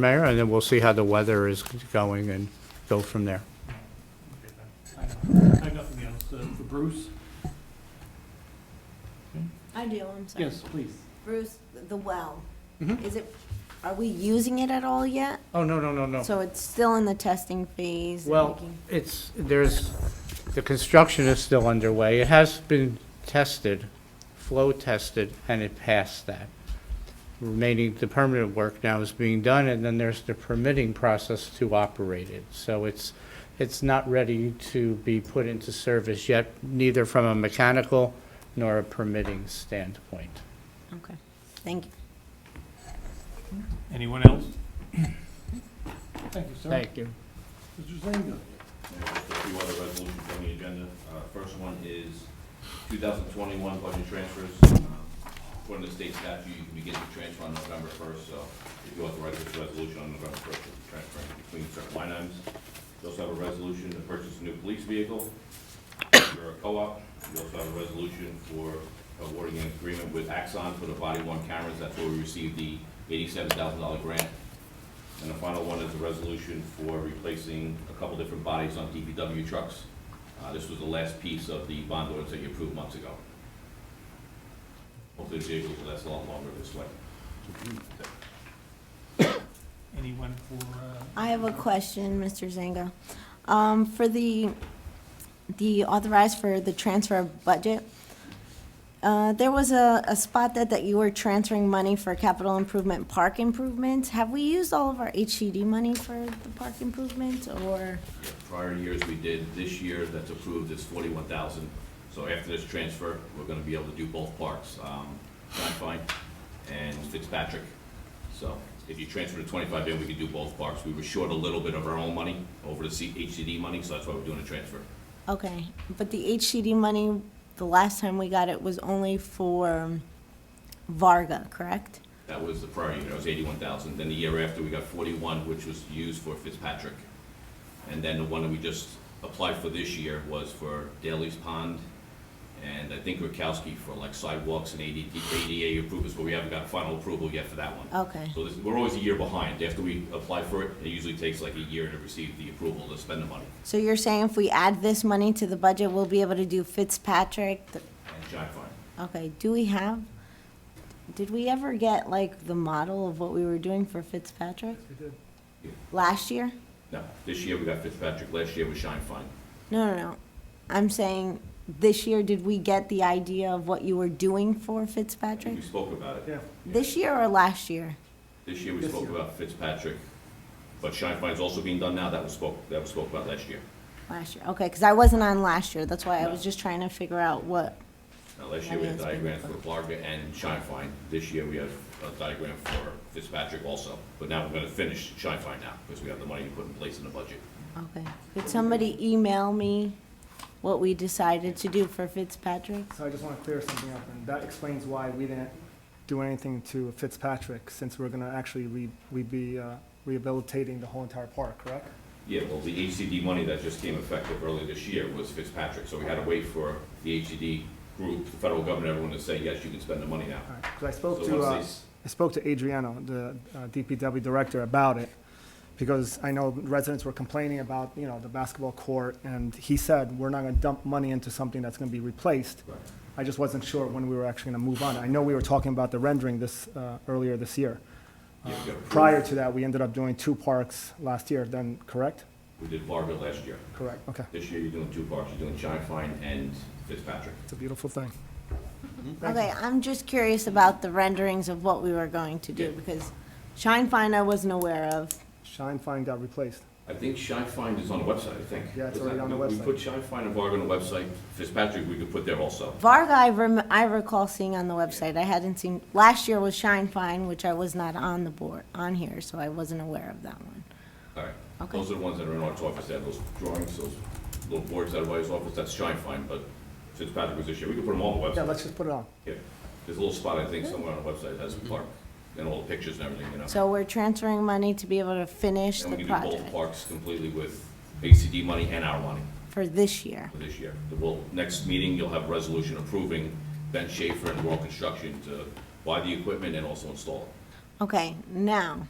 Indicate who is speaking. Speaker 1: Mayor, and then we'll see how the weather is going and go from there.
Speaker 2: I have nothing else. Uh, For Bruce?
Speaker 3: I do, I'm sorry.
Speaker 2: Yes, please.
Speaker 3: Bruce, the well,
Speaker 1: Mm-hmm.
Speaker 2: Mhm.
Speaker 3: is it, are we using it at all yet?
Speaker 1: Oh, no, no, no, no.
Speaker 3: So it's still in the testing phase? and
Speaker 1: Well,
Speaker 3: making-
Speaker 1: it's, there's, the construction is still underway. It has been tested, flow tested, and it passed that. Remaining, the permanent work now is being done, and then there's the permitting process to operate it. So it's, it's not ready to be put into service yet, neither from a mechanical nor a permitting standpoint.
Speaker 3: Okay, thank you.
Speaker 2: Anyone else? Thank you, sir.
Speaker 1: Thank you.
Speaker 2: Mr. Zanga?
Speaker 4: There's a few other resolutions on the agenda. Uh, First one is 2021 budget transfers. Um, According to state statute, you can begin to transfer on November 1st, so if you authorize this resolution on November 1st, you'll be transferring between certain line items. You also have a resolution to purchase a new police vehicle for a co-op. You also have a resolution for awarding an agreement with Axon for the body-worn cameras. That's where we received the $87,000 grant and the final one is a resolution for replacing a couple different bodies on DPW trucks. Uh, This was the last piece of the bond ordinance that you approved months ago. Hopefully the vehicles will last a lot longer this way.
Speaker 2: Anyone for, uh,
Speaker 3: I have a question, Mr. Zanga. Um, for the, the authorized for the transfer of budget, uh, there was a, a spot that, that you were transferring money for capital improvement, park improvements. Have we used all of our HCD money for the park improvements, or?
Speaker 4: Yeah, Prior years we did, this year that's approved is forty-one thousand. So after this transfer, we're gonna be able to do both parks, um, John Fine and Fitzpatrick. So if you transfer the twenty-five in, we can do both parks. We were short a little bit of our own money over the C- HCD money, so that's why we're doing a transfer.
Speaker 3: Okay, but the HCD money, the last time we got it was only for Varga, correct?
Speaker 4: That was the prior year, it was eighty-one thousand. Then the year after, we got forty-one, which was used for Fitzpatrick. And then the one that we just applied for this year was for Daly's Pond, and I think Rakowski for like sidewalks and AD- ADA approvals, but we haven't got final approval yet for that one.
Speaker 3: Okay,
Speaker 4: So this, we're always a year behind. After we apply for it, it usually takes like a year to receive the approval to spend the money.
Speaker 3: so you're saying if we add this money to the budget, we'll be able to do Fitzpatrick? the-
Speaker 4: And John Fine,
Speaker 3: Okay, do we have, did we ever get like the model of what we were doing for Fitzpatrick?
Speaker 4: Yeah.
Speaker 3: Last year?
Speaker 4: no, this year we got Fitzpatrick, last year was Shine Fine.
Speaker 3: No, no, no. I'm saying, this year, did we get the idea of what you were doing for Fitzpatrick?
Speaker 4: We spoke about it.
Speaker 2: yeah,
Speaker 3: This year or last year?
Speaker 4: This year, we
Speaker 2: This
Speaker 4: spoke
Speaker 2: year.
Speaker 4: about Fitzpatrick, but Shine Fine's also being done now, that was spoke, that was spoke about last year.
Speaker 3: Last year, okay, because I wasn't on last year, that's why I was
Speaker 4: No.
Speaker 3: just trying to figure out what,
Speaker 4: Now, last year, we had
Speaker 3: Yeah, it's been-
Speaker 4: diagrams for Clark and Shine Fine, this year, we have a diagram for Fitzpatrick also, but now we're gonna finish Shine Fine now, because we have the money to put in place in the budget.
Speaker 3: okay. Could somebody email me what we decided to do for Fitzpatrick?
Speaker 5: So I just want to clear something up, and that explains why we didn't do anything to Fitzpatrick, since we're going to actually re, we'd be uh, rehabilitating the whole entire park, correct?
Speaker 4: Yeah, well, the HCD money that just came effective early this year was Fitzpatrick, so we had to wait for the HCD group, the federal government, everyone to say, yes, you can spend the money now.
Speaker 5: All right, because I
Speaker 4: So
Speaker 5: spoke
Speaker 4: once
Speaker 5: to,
Speaker 4: they
Speaker 5: uh,
Speaker 4: s-
Speaker 5: I spoke to Adriano, the uh, DPW director, about it, because I know residents were complaining about, you know, the basketball court, and he said, we're not going to dump money into something that's going to be replaced.
Speaker 4: Right.
Speaker 5: I just wasn't sure when we were actually going to move on. I know we were talking about the rendering this, uh, earlier this year.
Speaker 4: Yeah, we got approved.
Speaker 5: Prior to that, we ended up doing two parks last year, then, correct?
Speaker 4: We did Varga last year,
Speaker 5: Correct, okay.
Speaker 4: this year, you're doing two parks, you're doing Shine Fine and Fitzpatrick.
Speaker 5: It's a beautiful thing. Thank you.
Speaker 3: Okay, I'm just curious about the renderings of what we were going to do,
Speaker 4: Yeah.
Speaker 3: because Shine Fine I wasn't aware of.
Speaker 5: Shine Fine got replaced.
Speaker 4: I think Shine Find is on the website, I think.
Speaker 5: Yeah, it's
Speaker 4: Was that-
Speaker 5: already on the
Speaker 4: We
Speaker 5: website.
Speaker 4: put Shine Find and Varga on the website. Fitzpatrick, we could put there also.
Speaker 3: Varga, I rem, I recall seeing on the website, I hadn't seen, last year was Shine Fine, which I was not on the board, on here, so I wasn't aware of that one.
Speaker 4: All right.
Speaker 3: Okay.
Speaker 4: Those are the ones that are in our office, that those drawings, those little boards that are by his office, that's Shine Find, but Fitzpatrick was this year. We could put them all on the
Speaker 5: Yeah,
Speaker 4: website.
Speaker 5: let's just put it on.
Speaker 4: Yeah. There's a little spot, I think, somewhere on the website that has park and all the pictures and everything, you know.
Speaker 3: So we're transferring money to be able to finish
Speaker 4: And we
Speaker 3: the
Speaker 4: can do both
Speaker 3: project
Speaker 4: parks completely with ACD money and our money
Speaker 3: for this year.
Speaker 4: for this year. Well, next meeting, you'll have a resolution approving Ben Schaefer and World Construction to buy the equipment and also install it.
Speaker 3: Okay, now,